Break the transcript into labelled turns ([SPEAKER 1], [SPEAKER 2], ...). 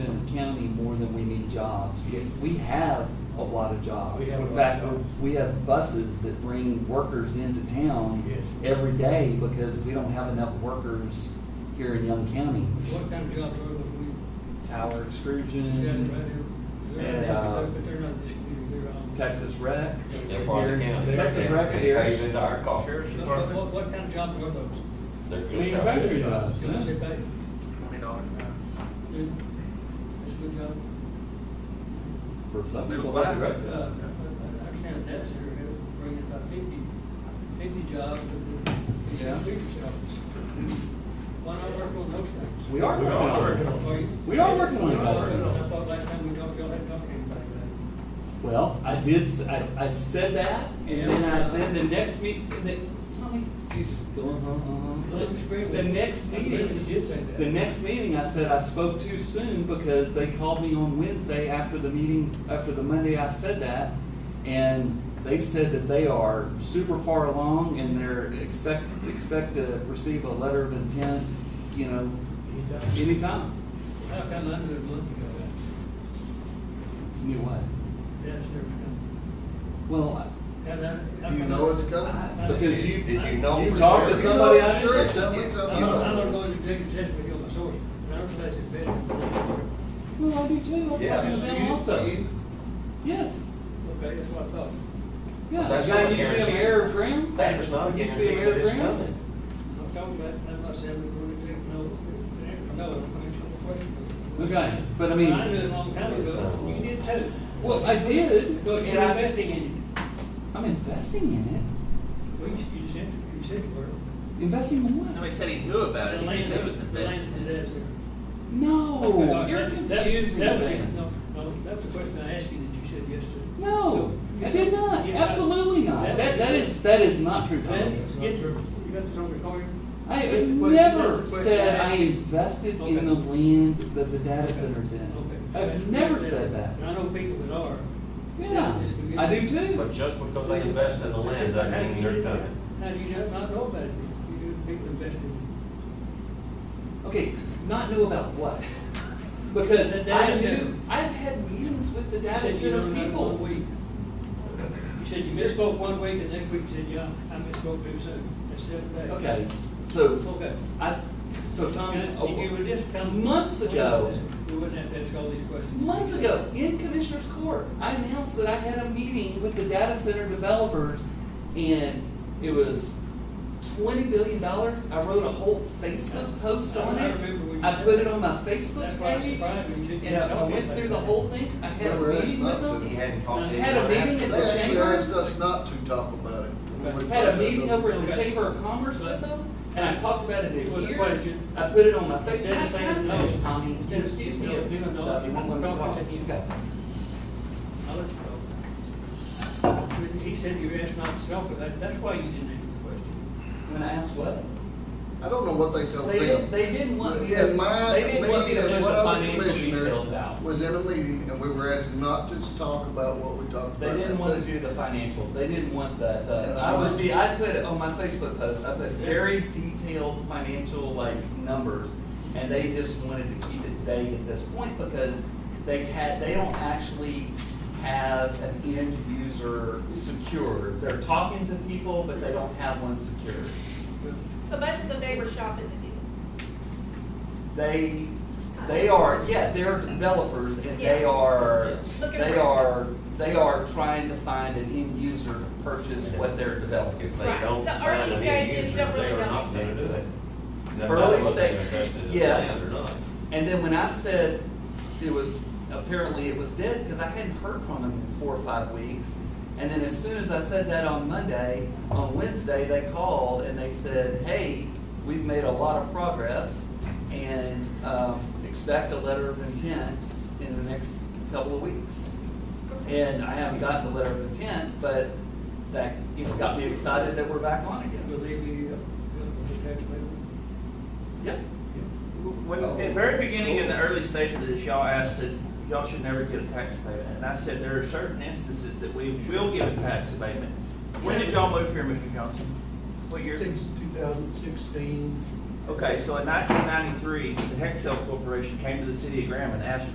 [SPEAKER 1] county more than we need jobs.
[SPEAKER 2] Yes.
[SPEAKER 1] We have a lot of jobs.
[SPEAKER 2] We have a
[SPEAKER 1] In
[SPEAKER 2] lot of
[SPEAKER 1] fact,
[SPEAKER 2] jobs.
[SPEAKER 1] we have buses that bring workers into town
[SPEAKER 2] Yes.
[SPEAKER 1] every day because we don't have enough workers here in Young County.
[SPEAKER 3] What kind of jobs are there?
[SPEAKER 1] Tower
[SPEAKER 3] We set it right
[SPEAKER 1] extrusion,
[SPEAKER 3] here.
[SPEAKER 1] Mm. And, uh,
[SPEAKER 3] But they're not this community, they're um, on.
[SPEAKER 1] Texas rec.
[SPEAKER 4] They're part of the county.
[SPEAKER 1] Texas Rex
[SPEAKER 4] It
[SPEAKER 1] here.
[SPEAKER 4] Pays into our cost. They're
[SPEAKER 2] Sheriff's
[SPEAKER 3] What- What,
[SPEAKER 2] Department.
[SPEAKER 3] what, what kind of jobs are those?
[SPEAKER 4] good job.
[SPEAKER 1] Manufacturing jobs,
[SPEAKER 3] Can I say
[SPEAKER 1] huh?
[SPEAKER 3] back?
[SPEAKER 2] Twenty dollars an hour.
[SPEAKER 3] Good. That's a good job.
[SPEAKER 1] For some
[SPEAKER 2] Middle
[SPEAKER 1] people, that's
[SPEAKER 2] class,
[SPEAKER 1] right.
[SPEAKER 2] right?
[SPEAKER 3] Uh, I- I understand that's here, it'll bring in about fifty, fifty jobs, but it's
[SPEAKER 1] Yeah.
[SPEAKER 3] a bigger job. Why not work on those things?
[SPEAKER 1] We are
[SPEAKER 4] We
[SPEAKER 1] working
[SPEAKER 4] are
[SPEAKER 1] on
[SPEAKER 4] working
[SPEAKER 1] it.
[SPEAKER 4] on
[SPEAKER 3] Are you?
[SPEAKER 1] We are working on it.
[SPEAKER 3] I thought- I thought last time we talked, y'all hadn't talked to anybody about it.
[SPEAKER 1] Well, I did, s- I, I said that, and then I, then the next meet, the, Tommy, you just go, uh, uh,
[SPEAKER 3] Well, it was
[SPEAKER 1] uh.
[SPEAKER 3] great.
[SPEAKER 1] The next
[SPEAKER 3] I believe
[SPEAKER 1] meeting,
[SPEAKER 3] You did say that.
[SPEAKER 1] the next meeting, I said I spoke too soon because they called me on Wednesday after the meeting, after the Monday I said that. And they said that they are super far along and they're expect, expect to receive a letter of intent, you know, anytime.
[SPEAKER 3] How come I knew a month ago that
[SPEAKER 1] Knew what?
[SPEAKER 3] Dennis there was coming?
[SPEAKER 1] Well,
[SPEAKER 3] How that- how
[SPEAKER 5] You
[SPEAKER 3] come
[SPEAKER 5] know
[SPEAKER 3] I-
[SPEAKER 5] it's coming.
[SPEAKER 1] I- because you.
[SPEAKER 4] Did you know
[SPEAKER 1] You
[SPEAKER 4] for
[SPEAKER 1] talked to
[SPEAKER 4] sure?
[SPEAKER 1] somebody I
[SPEAKER 5] Sure,
[SPEAKER 1] didn't.
[SPEAKER 5] it's done with
[SPEAKER 3] I'm
[SPEAKER 5] something.
[SPEAKER 3] not, I'm not going to executive session with you on my source, but I don't think that's the best. Okay,
[SPEAKER 1] Well, I do too. I'm
[SPEAKER 4] Yeah.
[SPEAKER 1] talking to them
[SPEAKER 4] You-
[SPEAKER 1] also.
[SPEAKER 4] you-
[SPEAKER 1] Yes.
[SPEAKER 3] that's what I thought.
[SPEAKER 1] Yeah.
[SPEAKER 4] That's
[SPEAKER 1] the guy
[SPEAKER 4] not
[SPEAKER 1] you see him
[SPEAKER 4] guaranteed.
[SPEAKER 1] air Graham?
[SPEAKER 4] That is not a
[SPEAKER 1] You see him
[SPEAKER 4] guarantee
[SPEAKER 1] air
[SPEAKER 4] that it's
[SPEAKER 1] Graham?
[SPEAKER 4] coming.
[SPEAKER 3] I'm talking about, I'm not saying we're going to executive, no, it's- no, I'm going to question.
[SPEAKER 1] Okay, but I
[SPEAKER 3] I knew
[SPEAKER 1] mean,
[SPEAKER 3] it a long time ago, you did too.
[SPEAKER 1] well, I did.
[SPEAKER 3] Because
[SPEAKER 1] and
[SPEAKER 3] you're
[SPEAKER 1] I-
[SPEAKER 3] investing in
[SPEAKER 1] I'm investing in it.
[SPEAKER 3] it. Well, you you just, said- you said you were.
[SPEAKER 1] Investing in
[SPEAKER 6] No,
[SPEAKER 1] what?
[SPEAKER 6] he said he knew
[SPEAKER 4] Uh,
[SPEAKER 6] about it,
[SPEAKER 3] The
[SPEAKER 6] he
[SPEAKER 3] land-
[SPEAKER 6] said it was
[SPEAKER 3] the
[SPEAKER 6] invested
[SPEAKER 3] land
[SPEAKER 6] in
[SPEAKER 3] that is there.
[SPEAKER 1] No,
[SPEAKER 3] That-
[SPEAKER 1] you're
[SPEAKER 3] that-
[SPEAKER 1] confusing
[SPEAKER 3] That was,
[SPEAKER 1] things.
[SPEAKER 3] no, no, that was a question I asked you that you said yes to.
[SPEAKER 1] No,
[SPEAKER 3] So,
[SPEAKER 1] I
[SPEAKER 3] yes,
[SPEAKER 1] did not.
[SPEAKER 3] yes, I-
[SPEAKER 1] Absolutely not.
[SPEAKER 3] That-
[SPEAKER 1] That, that is, that is not true.
[SPEAKER 3] Then,
[SPEAKER 1] Tom.
[SPEAKER 3] get, you got this on recording?
[SPEAKER 1] I
[SPEAKER 3] That's
[SPEAKER 1] have
[SPEAKER 3] the question- that's the
[SPEAKER 1] never
[SPEAKER 3] question
[SPEAKER 1] said I
[SPEAKER 3] asked you.
[SPEAKER 1] invested in
[SPEAKER 3] Okay.
[SPEAKER 1] the land that the data
[SPEAKER 3] Okay.
[SPEAKER 1] center's in.
[SPEAKER 3] Okay. So that's
[SPEAKER 1] I've
[SPEAKER 3] what
[SPEAKER 1] never
[SPEAKER 3] you
[SPEAKER 1] said that.
[SPEAKER 3] And I know people that are.
[SPEAKER 1] Yeah,
[SPEAKER 3] This could be-
[SPEAKER 1] I do too.
[SPEAKER 4] But just because they invest in the land doesn't mean they're coming.
[SPEAKER 3] How do you not know about it? You do, people invest in it.
[SPEAKER 1] Okay, not know about what? Because
[SPEAKER 3] The data
[SPEAKER 1] I
[SPEAKER 3] center.
[SPEAKER 1] knew, I've had meetings with the
[SPEAKER 3] You
[SPEAKER 1] data
[SPEAKER 3] said you
[SPEAKER 1] center
[SPEAKER 3] don't know one
[SPEAKER 1] people.
[SPEAKER 3] week. You said you misspoke one week and next week you said, yeah, I misspoke too soon. That's seven days.
[SPEAKER 1] Okay, so,
[SPEAKER 3] Okay.
[SPEAKER 1] I, so Tommy,
[SPEAKER 3] If you would just come.
[SPEAKER 1] Months oh, ago.
[SPEAKER 3] We wouldn't have to ask all these questions.
[SPEAKER 1] months ago, in Commissioner's Court, I announced that I had a meeting with the data center developers, and it was twenty billion dollars. I wrote a whole Facebook post on
[SPEAKER 3] I
[SPEAKER 1] it.
[SPEAKER 3] remember when you
[SPEAKER 1] I
[SPEAKER 3] said
[SPEAKER 1] put it
[SPEAKER 3] that.
[SPEAKER 1] on my Facebook
[SPEAKER 3] That's why I was
[SPEAKER 1] page,
[SPEAKER 3] surprised when you said. you
[SPEAKER 1] and I I
[SPEAKER 3] don't know
[SPEAKER 1] went
[SPEAKER 3] about
[SPEAKER 1] through the
[SPEAKER 3] that.
[SPEAKER 1] whole thing. I had a
[SPEAKER 5] Remember us
[SPEAKER 1] meeting
[SPEAKER 5] not
[SPEAKER 1] with
[SPEAKER 5] to.
[SPEAKER 1] them.
[SPEAKER 4] He hadn't talked to
[SPEAKER 1] Had a
[SPEAKER 4] anyone after
[SPEAKER 1] meeting in
[SPEAKER 5] They
[SPEAKER 1] the
[SPEAKER 4] that.
[SPEAKER 5] actually
[SPEAKER 1] chamber.
[SPEAKER 5] asked us not to talk about it. when we
[SPEAKER 1] had a
[SPEAKER 5] found out
[SPEAKER 1] meeting
[SPEAKER 5] that-
[SPEAKER 1] over in the Chamber of Commerce with them, and I talked about it
[SPEAKER 3] It was a
[SPEAKER 1] here.
[SPEAKER 3] question.
[SPEAKER 1] I put it on my Facebook.
[SPEAKER 3] Instead of saying no,
[SPEAKER 1] Tommy,
[SPEAKER 3] instead of
[SPEAKER 1] excuse me
[SPEAKER 3] no,
[SPEAKER 1] of doing
[SPEAKER 3] no,
[SPEAKER 1] stuff,
[SPEAKER 3] if
[SPEAKER 1] you
[SPEAKER 3] you
[SPEAKER 1] won't
[SPEAKER 3] want
[SPEAKER 1] let
[SPEAKER 3] to
[SPEAKER 1] me
[SPEAKER 3] talk,
[SPEAKER 1] talk.
[SPEAKER 3] then you-
[SPEAKER 1] Okay.
[SPEAKER 3] I'll let you know. He said you asked not to talk about that, that's why you didn't answer the question.
[SPEAKER 1] When I asked what?
[SPEAKER 5] I don't know what they told
[SPEAKER 1] They didn't,
[SPEAKER 5] them.
[SPEAKER 1] they didn't want me to,
[SPEAKER 5] In my,
[SPEAKER 1] they didn't want me
[SPEAKER 5] me
[SPEAKER 1] to
[SPEAKER 5] and
[SPEAKER 1] put
[SPEAKER 5] one
[SPEAKER 1] the
[SPEAKER 5] other
[SPEAKER 1] financial details
[SPEAKER 5] commissioner
[SPEAKER 1] out.
[SPEAKER 5] was in a meeting and we were asked not to talk about what we talked about.
[SPEAKER 1] They didn't
[SPEAKER 5] that
[SPEAKER 1] want to
[SPEAKER 5] day.
[SPEAKER 1] do the financial, they didn't want the, the,
[SPEAKER 5] And
[SPEAKER 1] I
[SPEAKER 5] I
[SPEAKER 1] was
[SPEAKER 5] was-
[SPEAKER 1] be, I put it on my Facebook post, I put very detailed financial like numbers. And they just wanted to keep it vague at this point because they had, they don't actually have an end user secured. They're talking to people, but they don't have one secured.
[SPEAKER 7] So basically, they were shopping the deal.
[SPEAKER 1] They, they are, yeah, they're developers and they
[SPEAKER 7] Yeah.
[SPEAKER 1] are,
[SPEAKER 7] Looking
[SPEAKER 1] they
[SPEAKER 7] for-
[SPEAKER 1] are, they are trying to find an end user to purchase what they're developing.
[SPEAKER 4] If they
[SPEAKER 7] Right.
[SPEAKER 4] don't
[SPEAKER 7] So
[SPEAKER 4] find
[SPEAKER 7] early
[SPEAKER 4] an end
[SPEAKER 7] stages
[SPEAKER 4] user,
[SPEAKER 7] don't really
[SPEAKER 4] They are
[SPEAKER 7] know.
[SPEAKER 4] not gonna do it. No matter
[SPEAKER 1] Early
[SPEAKER 4] what they
[SPEAKER 1] stage-
[SPEAKER 4] invested in the
[SPEAKER 1] yes.
[SPEAKER 4] land or not.
[SPEAKER 1] And then when I said it was, apparently it was dead, because I hadn't heard from them in four or five weeks. And then as soon as I said that on Monday, on Wednesday, they called and they said, hey, we've made a lot of progress and um, expect a letter of intent in the next couple of weeks. And I haven't gotten the letter of intent, but that, you know, got me excited that we're back on again.
[SPEAKER 3] Will they be, uh, eligible for tax abatement?
[SPEAKER 1] Yeah.
[SPEAKER 6] When, at the very beginning, in the early stages of this, y'all asked that y'all should never get a tax abatement, and I said there are certain instances that we will give a tax abatement. When did y'all move here, Mr. Johnson? What year?
[SPEAKER 8] Since 2016,
[SPEAKER 6] Okay, so in nineteen ninety-three, the Hexel Corporation came to the city of Graham and asked